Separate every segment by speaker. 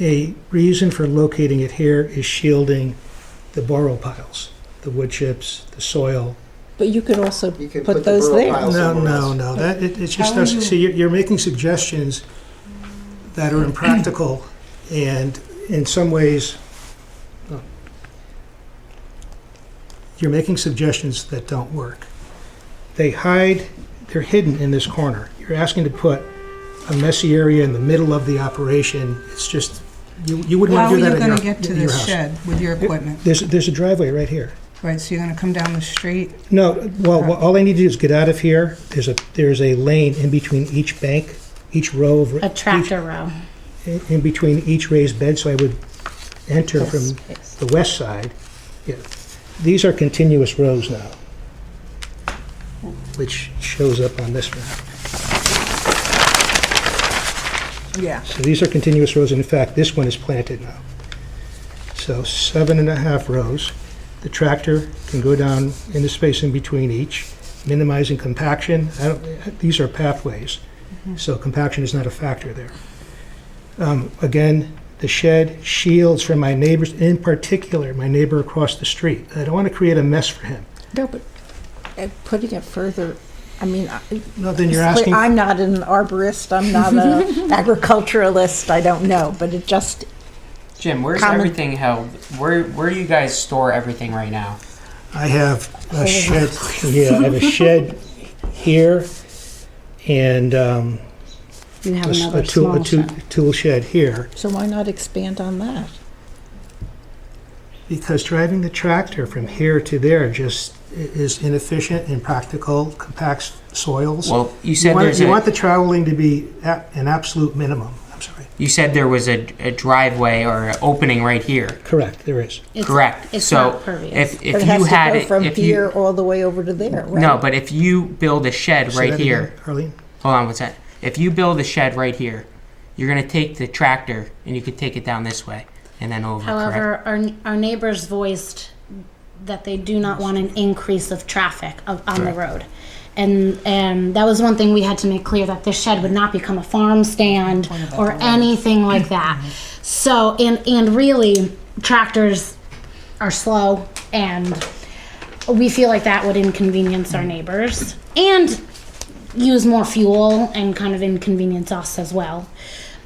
Speaker 1: a reason for locating it here is shielding the borrow piles, the wood chips, the soil.
Speaker 2: But you could also
Speaker 3: You can
Speaker 2: put
Speaker 3: put the
Speaker 2: those
Speaker 3: burl
Speaker 2: there.
Speaker 3: pile-
Speaker 1: No,
Speaker 3: somewhere
Speaker 1: no,
Speaker 3: else.
Speaker 1: no, that, it, it's just,
Speaker 4: How are
Speaker 1: doesn't-
Speaker 4: you-
Speaker 1: see, you're, you're making suggestions that are impractical and in some ways, oh, you're making suggestions that don't work. They hide, they're hidden in this corner. You're asking to put a messy area in the middle of the operation. It's just, you, you wouldn't
Speaker 4: How
Speaker 1: want
Speaker 4: are
Speaker 1: to
Speaker 4: you
Speaker 1: do that in
Speaker 4: going
Speaker 1: your,
Speaker 4: to get to
Speaker 1: in your
Speaker 4: this
Speaker 1: house.
Speaker 4: shed with your equipment?
Speaker 1: There's, there's a driveway right here.
Speaker 4: Right, so you're going to come down the street?
Speaker 1: No, well, wha- all I need to do is get out of here. There's a, there's a lane in between each bank, each row of.
Speaker 5: A tractor row.
Speaker 1: each- In between each raised bed, so I would enter from the west side. Yeah. These are continuous rows now, which shows up on this map.
Speaker 4: Yeah.
Speaker 1: So these are continuous rows, and in fact, this one is planted now. So seven and a half rows. The tractor can go down in the space in between each, minimizing compaction. I don't- These are pathways, so compaction is not a factor there. Um, Again, the shed shields from my neighbors, in particular, my neighbor across the street. I don't want to create a mess for him.
Speaker 2: No, but uh, putting it further, I mean, I-
Speaker 1: No, then you're
Speaker 2: it's
Speaker 1: asking,
Speaker 2: clear- I'm not an arborist, I'm not an agriculturalist, I don't know, but it just,
Speaker 6: Jim, where's
Speaker 2: Common-
Speaker 6: everything held? Where where do you guys store everything right now?
Speaker 1: I have a shed, yeah, I have a shed here, and, um,
Speaker 5: You have
Speaker 1: a s-
Speaker 5: another
Speaker 1: a tool, a
Speaker 5: small
Speaker 1: tool,
Speaker 5: shed.
Speaker 1: tool shed here,
Speaker 2: so why not expand on that?
Speaker 1: because driving the tractor from here to there just i- is inefficient, impractical, compacts soils.
Speaker 6: Well, you
Speaker 1: You
Speaker 6: said
Speaker 1: want,
Speaker 6: there's
Speaker 1: you
Speaker 6: a,
Speaker 1: want the traveling to be a- an absolute minimum, I'm sorry.
Speaker 6: you said there was a, a driveway or an opening right here.
Speaker 1: Correct, there is.
Speaker 5: It's-
Speaker 6: Correct.
Speaker 5: It's
Speaker 6: so
Speaker 5: not pervious.
Speaker 6: if
Speaker 2: But
Speaker 6: if
Speaker 2: it has
Speaker 6: you
Speaker 2: to
Speaker 6: had
Speaker 2: go
Speaker 6: it,
Speaker 2: From
Speaker 6: if
Speaker 2: here
Speaker 6: you
Speaker 2: all the way over to there, right?
Speaker 6: no, but if you build a shed
Speaker 1: Say
Speaker 6: right
Speaker 1: that
Speaker 6: here,
Speaker 1: again, Arlene?
Speaker 6: hold on, what's that? If you build a shed right here, you're gonna take the tractor and you could take it down this way and then over. correct?
Speaker 5: However, our, our neighbors voiced that they do not want an increase of traffic of, on the road. And, and that was one thing we had to make clear, that this shed would not become a farm stand or anything like that. So, and, and really, tractors are slow and we feel like that would inconvenience our neighbors and use more fuel and kind of inconvenience us as well.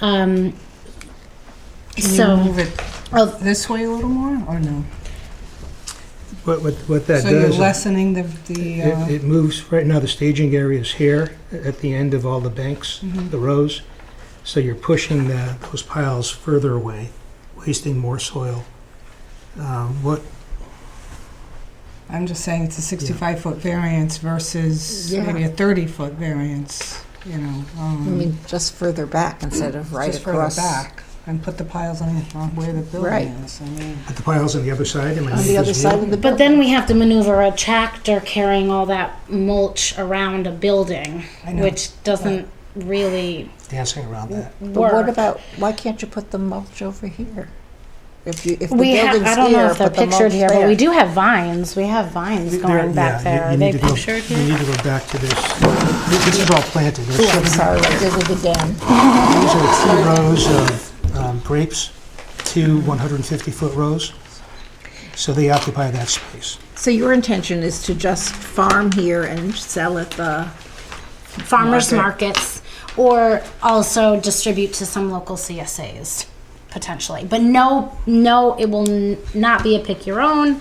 Speaker 5: Um,
Speaker 4: Can you
Speaker 5: So-
Speaker 4: move it
Speaker 5: of-
Speaker 4: this way a little more, or no?
Speaker 1: What, what, what that does.
Speaker 4: So you're
Speaker 1: is-
Speaker 4: lessening the, the,
Speaker 1: It
Speaker 4: uh,
Speaker 1: it moves, right now the staging area is here, at the end of all the banks,
Speaker 2: Mm-hmm.
Speaker 1: the rows. So you're pushing the- those piles further away, wasting more soil. Um, What,
Speaker 4: I'm just saying it's a 65-foot variance versus
Speaker 2: Yeah.
Speaker 4: maybe a 30-foot variance, you know. um,
Speaker 2: I mean, just further back instead of right
Speaker 4: Just further
Speaker 2: across.
Speaker 4: back, and put the piles on on where the
Speaker 2: Right.
Speaker 4: building is, I mean.
Speaker 1: but the piles on the other side? am I
Speaker 2: On
Speaker 1: making
Speaker 2: the other
Speaker 1: this
Speaker 2: side
Speaker 1: view?
Speaker 2: of the
Speaker 5: But
Speaker 2: building.
Speaker 5: then we have to maneuver a tractor carrying all that mulch around a building,
Speaker 4: I know.
Speaker 5: which doesn't really
Speaker 1: Dancing around that.
Speaker 2: But what
Speaker 5: work.
Speaker 2: about, why can't you put the mulch over here? If you, if the
Speaker 5: We have,
Speaker 2: building's
Speaker 5: I don't know
Speaker 2: here,
Speaker 5: if they're
Speaker 2: put the
Speaker 5: pictured
Speaker 2: mulch
Speaker 5: here, but
Speaker 2: there.
Speaker 5: we do have vines. We have vines going back
Speaker 1: Yeah, you-
Speaker 5: there.
Speaker 1: you
Speaker 5: Are
Speaker 1: need
Speaker 5: they
Speaker 1: to go-
Speaker 5: pictured
Speaker 1: You
Speaker 5: here?
Speaker 1: need to go back to this. This- This is all planted. There's
Speaker 2: I'm
Speaker 1: seven-
Speaker 2: sorry, I did it again.
Speaker 1: These are two rows of um, grapes, two 150-foot rows. So they occupy that space.
Speaker 2: So your intention is to just farm here and sell at the,
Speaker 5: Farmers markets, or also distribute to some local CSAs, potentially. But no, no, it will n- not be a pick your own.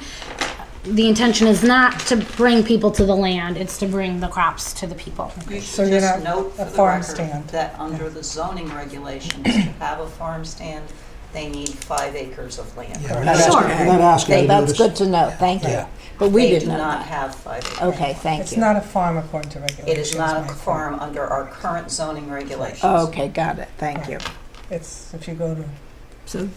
Speaker 5: The intention is not to bring people to the land, it's to bring the crops to the people.
Speaker 7: You
Speaker 4: So
Speaker 7: should
Speaker 4: you're
Speaker 7: just
Speaker 4: not
Speaker 7: note
Speaker 4: a
Speaker 7: for the
Speaker 4: farm
Speaker 7: record
Speaker 4: stand.
Speaker 7: that under the zoning regulations, to have a farm stand, they need five acres of land.
Speaker 1: Yeah, we're not
Speaker 2: Sure.
Speaker 1: asking- We're not asking.
Speaker 2: Okay,
Speaker 1: to
Speaker 2: that's
Speaker 1: notice-
Speaker 2: good to know, thank you.
Speaker 1: Yeah.
Speaker 2: But we
Speaker 7: They
Speaker 2: did
Speaker 7: do
Speaker 2: not.
Speaker 7: not have five acres.
Speaker 2: Okay, thank
Speaker 4: It's
Speaker 2: you.
Speaker 4: not a farm according to regulations.
Speaker 7: It is not a
Speaker 4: Mike.
Speaker 7: farm under our current zoning regulations.
Speaker 2: Oh, Okay, got it, thank you.
Speaker 4: It's, if you go to,
Speaker 2: So,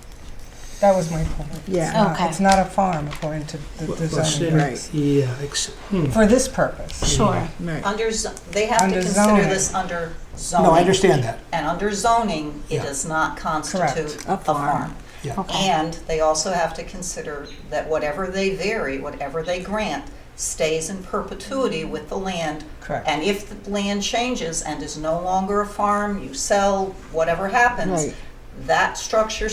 Speaker 4: that was my point. It's
Speaker 2: Yeah.
Speaker 4: not-
Speaker 5: Okay.
Speaker 4: It's not a farm according to the the
Speaker 1: Well,
Speaker 4: zoning.
Speaker 1: sure,
Speaker 2: Right.
Speaker 1: Yeah, ex- hmm.
Speaker 4: For this purpose.
Speaker 5: Sure.
Speaker 2: right.
Speaker 7: Under, z- they have to
Speaker 4: Under
Speaker 7: consider
Speaker 4: zoning.
Speaker 7: this under zoning.
Speaker 1: No, I understand that.
Speaker 7: And under zoning, it
Speaker 1: Yeah.
Speaker 7: does not constitute
Speaker 4: Correct.
Speaker 2: A
Speaker 7: a farm.
Speaker 1: Yeah.
Speaker 7: And they also have to consider that whatever they vary, whatever they grant, stays in perpetuity with the land.
Speaker 4: Correct.
Speaker 7: And if the land changes and is no longer a farm, you sell, whatever happens,
Speaker 2: Right.
Speaker 7: that structure